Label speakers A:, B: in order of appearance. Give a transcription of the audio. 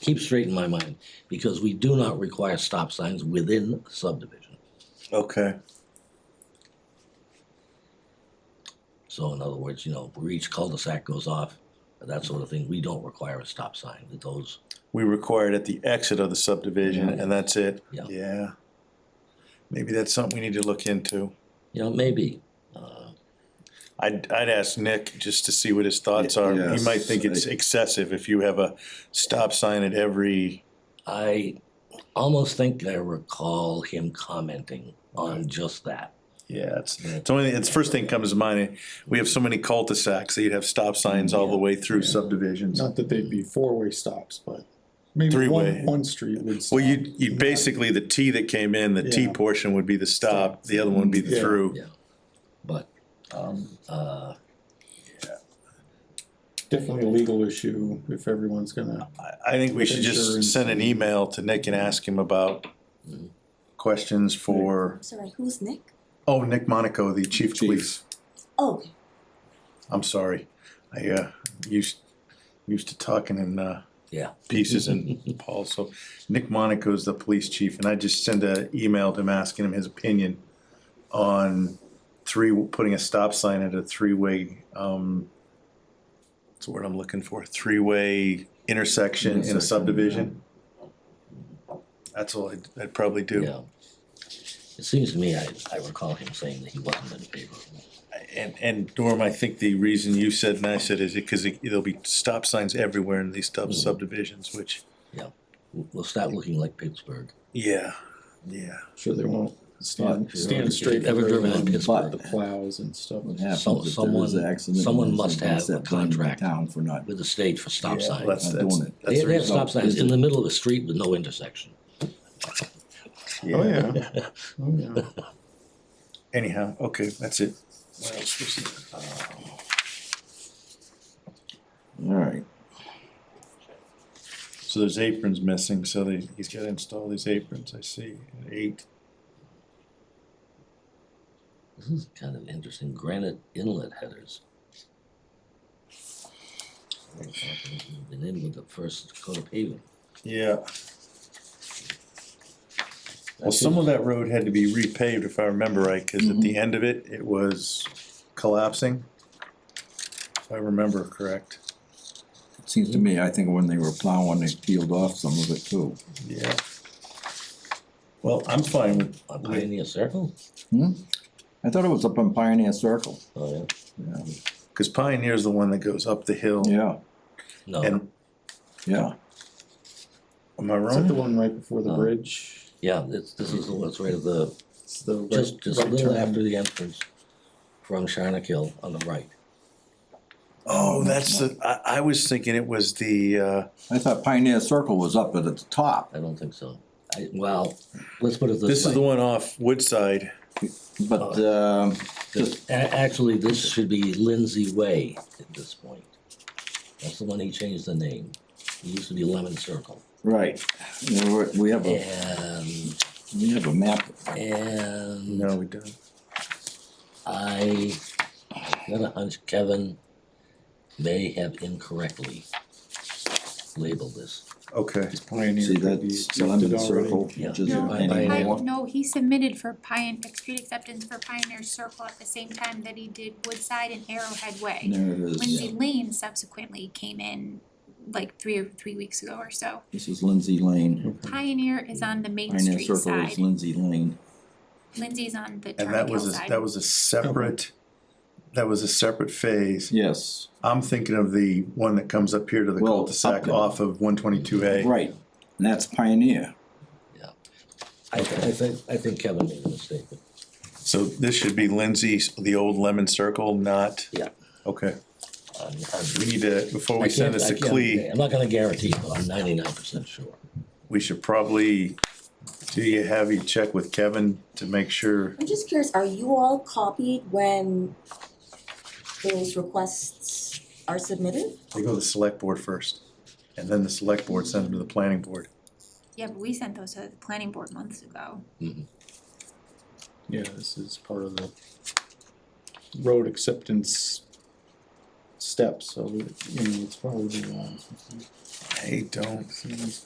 A: keep straight in my mind, because we do not require stop signs within subdivision.
B: Okay.
A: So in other words, you know, where each cul-de-sac goes off, that sort of thing, we don't require a stop sign, that those,
B: We require it at the exit of the subdivision and that's it.
A: Yeah.
B: Yeah. Maybe that's something we need to look into.
A: you know, maybe. uh,
B: I'd, I'd ask Nick just to see what his thoughts are. He might think it's
C: Yes, I-
B: excessive if you have a stop sign at every,
A: I almost think I recall him commenting on just that.
B: yeah, it's, it's only, it's first thing comes to mind. We have so many cul-de-sacs that you'd have stop signs all the way through subdivisions.
C: Not that they'd be four-way stops, but maybe
B: Three-way.
C: one, one street would stop.
B: Well, you, you basically, the T that came in, the T
C: Yeah.
B: portion would be the stop, the other one would be the
C: Yeah.
B: through.
A: Yeah. But,
B: Um,
A: uh,
C: Definitely a legal issue if everyone's gonna,
B: I, I think we should just
C: Insurance.
B: send an email to Nick and ask him about
A: Mhm.
B: questions for,
D: Sorry, who's Nick?
B: oh, Nick Monaco, the chief of
C: Chief.
B: police.
D: Oh,
B: I'm sorry. I uh, used used to talking in uh,
A: Yeah.
B: pieces and Paul. So Nick Monaco is the police chief, and I just sent an email to him asking him his opinion on three putting a stop sign at a three way. Um, what's the word I'm looking for? Three way intersection, in
C: Intersection,
B: a subdivision. That's all I'd, I'd probably do.
A: yeah. It seems to me, I, I recall him saying that he wasn't in favor of it.
B: And, and Norm, I think the reason you said and I said is because there'll be stop signs everywhere in these sub- subdivisions, which,
A: We'll- We'll start looking like Pittsburgh.
B: yeah, yeah.
C: sure they won't stand,
A: Not-
C: stand straight. for
A: Ever driven in
C: everyone,
A: Pittsburgh?
C: But the plows and stuff.
E: What
A: Some-
E: happens if there
A: someone-
E: is an accident?
A: someone
E: and there's
A: must
E: somebody
A: have
E: set
A: a
E: blaming the
A: contract.
E: Town for not,
A: With a stage for stop
B: Yeah,
A: signs.
B: That's,
E: Not
B: that's,
E: doing it.
B: that's
A: They
B: the
A: they have stop
B: result.
A: signs in the middle of a street with no intersection.
C: Oh, yeah. Oh, yeah.
B: Anyhow, okay, that's it. What else was there?
E: alright,
B: So there's aprons missing, so they, he's gotta install these aprons, I see, at eight.
A: This is kind of interesting, granite inlet headers. Been in with the first coat of paving.
B: Yeah. Well, some of that road had to be repaved, if I remember right, cause at
C: Mm-hmm.
B: the end of it, it was collapsing. If I remember correct.
E: it seems to me, I think when they were plowing, they peeled off some of it too.
B: Yeah. Well, I'm fine with,
A: On Pioneer Circle?
E: Hmm? I thought it was up on Pioneer Circle,
A: Oh, yeah.
E: yeah,
B: cause Pioneer's the one that goes up the hill.
E: yeah,
A: No,
B: And,
E: yeah,
B: am I
C: Is that the
B: wrong?
C: one right before the
A: Uh,
C: bridge?
A: yeah, this, this is the one that's right at the,
C: It's the right-
A: just, just a
C: right
A: little
C: turn.
A: after the entrance from Sharnak Hill on the right.
B: Oh, that's the, I, I was thinking it was the, uh,
E: I thought Pioneer Circle was up at the top,
A: I don't think so. I, well, let's put it
B: This
A: this
B: is the
A: way.
B: one off Woodside.
E: but,
A: Oh.
E: um,
A: The-
E: just,
A: a- Actually, this should be Lindsay Way at this point. That's the one he changed the name. It used to be Lemon Circle.
E: right, There were- we have a,
A: And,
E: we have a map,
A: and.
B: we don't.
A: I got a hunch Kevin may have incorrectly labeled this.
B: Okay,
C: Pioneer
E: see
C: could be
E: that's
C: lifted
E: Lemon
C: already.
E: Circle,
A: Yeah.
E: which is
F: No,
A: Pioneer.
F: I,
E: anymore.
F: no, he submitted for Pioneer, street acceptance for Pioneer Circle at the same time that he did Woodside and Arrowhead Way.
E: There it is,
F: Lindsay Lane subsequently came in like three or three weeks ago or so.
E: this is Lindsay Lane,
F: Pioneer is on the Main
E: Pioneer
F: Street
E: Circle is
F: side,
E: Lindsay Lane,
F: Lindsay's on the
B: and
F: Turner
B: that
F: Hill
B: was, a-
F: side.
B: that was a separate, that was a separate phase.
E: yes,
B: I'm thinking of the one that comes up here to the
E: Well,
B: cul-de-sac
E: Upton.
B: off of one twenty-two A.
E: right, and that's Pioneer,
A: I, th- I think, I think Kevin made a mistake, but
B: So this should be Lindsay's, the old Lemon Circle, not?
A: Yeah.
B: Okay,
A: I'm, I'm.
B: we need to, before
A: I
B: we send
A: can't-
B: this
A: I
B: to
A: can't-
B: Clea,
A: I'm not gonna guarantee, but I'm ninety-nine percent sure.
B: we should probably, do you have you check with Kevin to make sure?
D: I'm just curious, are you all copied when those requests are submitted?
B: They go to the select board first, and then the select board sends them to the planning board.
F: Yeah, but we sent those to the planning board months ago.
C: Yeah, this is part of the road acceptance steps, so, you know, it's probably. uh,
B: I They don't.